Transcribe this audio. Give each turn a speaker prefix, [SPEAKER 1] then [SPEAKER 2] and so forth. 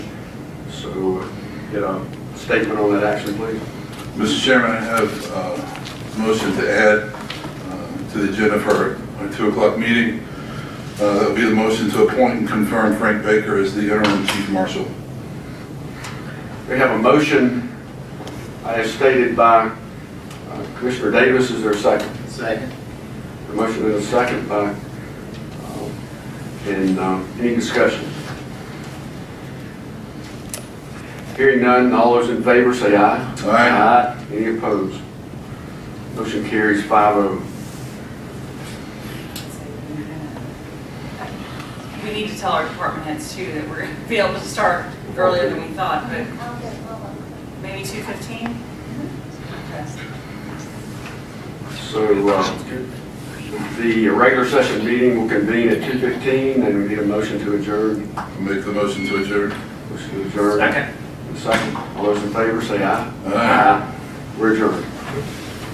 [SPEAKER 1] So, uh, get a statement on that action, please.
[SPEAKER 2] Mr. Chairman, I have uh, a motion to add uh, to the agenda for our 2 o'clock meeting. Uh, That would be the motion to appoint and confirm Frank Baker as the interim chief marshal.
[SPEAKER 1] We have a motion as stated by uh, Commissioner Davis. Is there a second?
[SPEAKER 3] Second.
[SPEAKER 1] The motion is second by, um, and um, any discussion? Hearing none, all those in favor say aye.
[SPEAKER 2] Aye.
[SPEAKER 1] Any opposed? Motion carries five oh.
[SPEAKER 4] We need to tell our department heads too that we're gonna be able to start earlier than we thought, but maybe two fifteen?
[SPEAKER 1] So uh, the regular session meeting will convene at 2:15 and we need a motion to adjourn.
[SPEAKER 2] I'll Make the motion to adjourn.
[SPEAKER 1] Motion to adjourn. Second. Second. All those in favor say aye.
[SPEAKER 2] Aye.
[SPEAKER 1] We're adjourned.